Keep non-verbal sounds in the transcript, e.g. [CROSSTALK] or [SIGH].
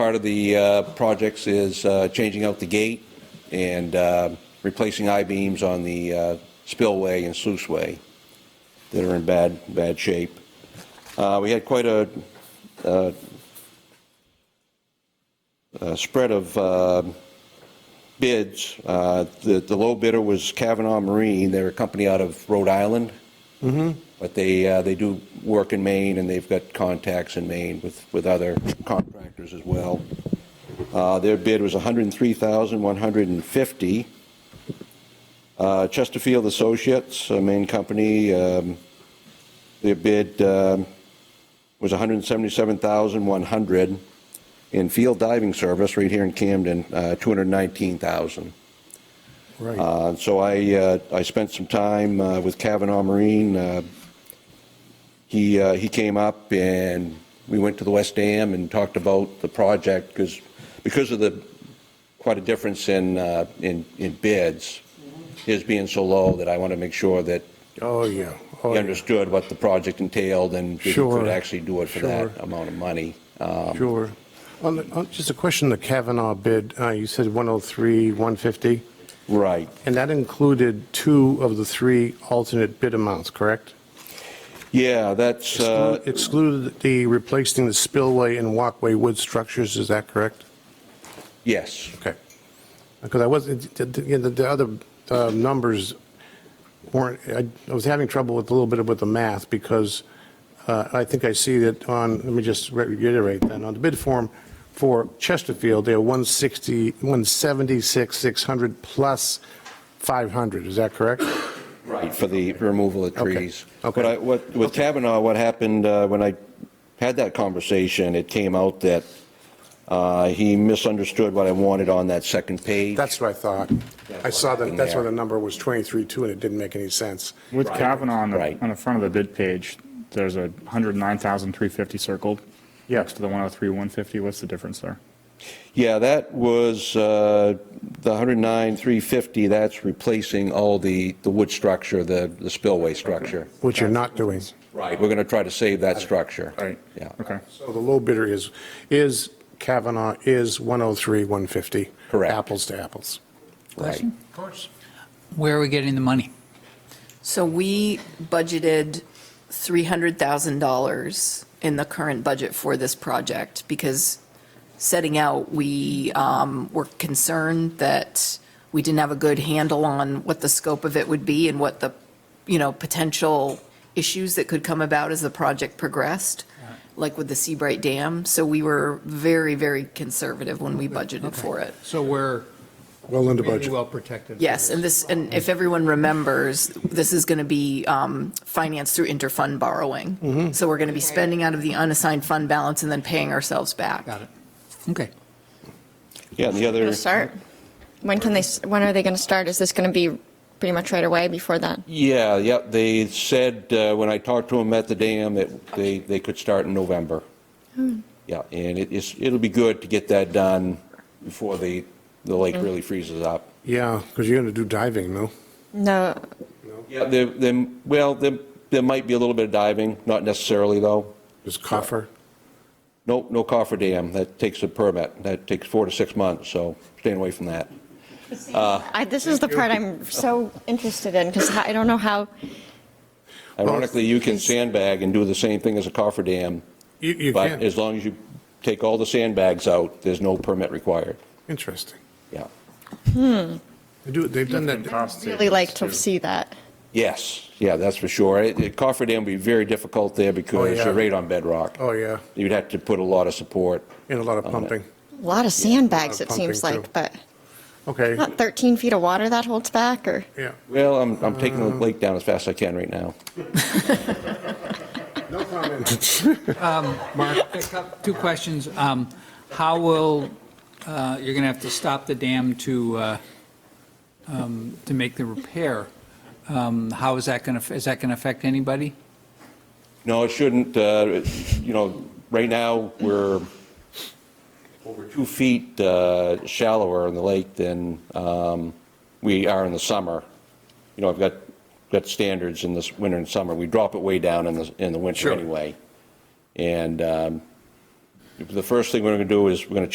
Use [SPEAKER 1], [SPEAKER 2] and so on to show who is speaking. [SPEAKER 1] part of the uh, projects is uh, changing out the gate and uh, replacing I-beams on the uh, spillway and sluiceway that are in bad, bad shape. Uh, We had quite a uh, a spread of uh, bids. Uh, The the low bidder was Kavanaugh Marine. They're a company out of Rhode Island. But they, uh, they do work in Maine, and they've got contacts in Maine with, with other contractors as well. Uh, Their bid was 103150 Uh Chesterfield Associates, a Maine company, um, their bid um, was 177100 In Field Diving Service, right here in Camden, uh, 219000
[SPEAKER 2] Right.
[SPEAKER 1] uh, So I, uh, I spent some time uh, with Kavanaugh Marine. Uh, He, uh, he came up and we went to the West Dam and talked about the project because, because of the, quite a difference in, uh, in, in bids, his being so low that I want to make sure that
[SPEAKER 2] Oh, yeah. Oh,
[SPEAKER 1] he
[SPEAKER 2] yeah.
[SPEAKER 1] understood what the project entailed and if he could
[SPEAKER 2] Sure.
[SPEAKER 1] actually do it for that
[SPEAKER 2] Sure.
[SPEAKER 1] amount of money. Um,
[SPEAKER 2] Sure. On the- on- Just a question, the Kavanaugh bid, uh, you said 103, 150,
[SPEAKER 1] Right.
[SPEAKER 2] and that included two of the three alternate bid amounts, correct?
[SPEAKER 1] Yeah, that's, uh,
[SPEAKER 2] Exclu- Excluded the replacing the spillway and walkway wood structures, is that correct?
[SPEAKER 1] yes.
[SPEAKER 2] Okay. Because I wasn't, the- the the- the other uh, numbers weren't, I I was having trouble with a little bit with the math because uh, I think I see that on, let me just re- reiterate then, on the bid form for Chesterfield, they're 160, 176, 600 plus 500, is that correct?
[SPEAKER 1] Right, for the removal of
[SPEAKER 2] Okay,
[SPEAKER 1] trees.
[SPEAKER 2] okay.
[SPEAKER 1] But I- what- With Kavanaugh, what happened, uh, when I had that conversation, it came out that uh, he misunderstood what I wanted on that second page.
[SPEAKER 2] That's what I thought. I saw that, that's why the number was 23.2 and it didn't make any sense.
[SPEAKER 3] With Kavanaugh on the,
[SPEAKER 1] Right.
[SPEAKER 3] on the front of the bid page, there's a 109,350 circled. Next to the 103, 150, what's the difference there?
[SPEAKER 1] Yeah, that was uh, the 109, 350, that's replacing all the, the wood structure, the the spillway structure.
[SPEAKER 2] Which you're not doing.
[SPEAKER 1] Right. We're going to try to save that structure.
[SPEAKER 3] Right.
[SPEAKER 1] Yeah.
[SPEAKER 4] Uh,
[SPEAKER 3] Okay.
[SPEAKER 2] So the low bidder is, is Kavanaugh, is 103, 150.
[SPEAKER 1] Correct.
[SPEAKER 2] Apples to apples.
[SPEAKER 1] Right.
[SPEAKER 2] Of course.
[SPEAKER 5] Where are we getting the money?
[SPEAKER 6] So we budgeted $300,000 in the current budget for this project because setting out, we um, were concerned that we didn't have a good handle on what the scope of it would be and what the, you know, potential issues that could come about as the project progressed, like with the Seabright Dam. So we were very, very conservative when we budgeted for it.
[SPEAKER 7] So we're
[SPEAKER 2] Well under
[SPEAKER 7] really
[SPEAKER 2] budget.
[SPEAKER 7] well protected. for
[SPEAKER 6] Yes, and this, and if everyone remembers, this is going to be um, financed through interfund
[SPEAKER 7] Mm-hmm.
[SPEAKER 6] borrowing. So we're going to be spending out of the unassigned fund balance and then paying ourselves back.
[SPEAKER 7] Got it.
[SPEAKER 5] Okay.
[SPEAKER 1] Yeah, and the other.
[SPEAKER 4] to start? When can they, when are they going to start? Is this going to be pretty much right away before then?
[SPEAKER 1] Yeah, yep, they said, uh, when I talked to them at the dam, that they, they could start in November. Yeah, and it is, it'll be good to get that done before the, the lake really freezes up.
[SPEAKER 2] Yeah, because you're going to do diving, no?
[SPEAKER 4] No,
[SPEAKER 1] Yeah, there, there, well, there, there might be a little bit of diving, not necessarily, though.
[SPEAKER 2] Just coffer?
[SPEAKER 1] No, no coffer dam, that takes a permit, that takes four to six months, so staying away from that.
[SPEAKER 4] I, this is the part I'm so interested in because I don't know how,
[SPEAKER 1] Ironically, you can sandbag and do the same thing as a coffer dam,
[SPEAKER 2] You, you
[SPEAKER 1] but
[SPEAKER 2] can.
[SPEAKER 1] as long as you take all the sandbags out, there's no permit required,
[SPEAKER 2] Interesting.
[SPEAKER 1] yeah.
[SPEAKER 2] They do, they've done
[SPEAKER 3] And
[SPEAKER 2] that.
[SPEAKER 3] cost
[SPEAKER 4] really like to
[SPEAKER 3] savings, too.
[SPEAKER 4] see that.
[SPEAKER 1] Yes, yeah, that's for sure. It- it- Coffer Dam would be very difficult there because
[SPEAKER 2] Oh, yeah.
[SPEAKER 1] you're right on bedrock.
[SPEAKER 2] Oh, yeah.
[SPEAKER 1] You'd have to put a lot of support.
[SPEAKER 2] And a lot of
[SPEAKER 1] on it.
[SPEAKER 2] pumping.
[SPEAKER 4] A lot of sandbags,
[SPEAKER 2] lot of
[SPEAKER 4] it seems
[SPEAKER 2] pumping,
[SPEAKER 4] like, but
[SPEAKER 2] Okay,
[SPEAKER 4] not 13 feet of water that holds back or?
[SPEAKER 2] yeah.
[SPEAKER 1] Well, I'm, I'm taking
[SPEAKER 2] Uh-huh.
[SPEAKER 1] the lake down as fast as I can right now.
[SPEAKER 2] No
[SPEAKER 1] [LAUGHS]
[SPEAKER 2] comment.
[SPEAKER 5] Mark, two questions. Um, How will, uh, you're going to have to stop the dam to, uh, um, to make the repair. Um, How is that going to, is that going to affect anybody?
[SPEAKER 1] No, it shouldn't, uh, it- you know, right now, we're over two feet uh, shallower in the lake than um, we are in the summer. You know, I've got, got standards in this winter and summer. We drop it way down in the, in the winter
[SPEAKER 2] Sure.
[SPEAKER 1] anyway. And um, the first thing we're going to do is we're going to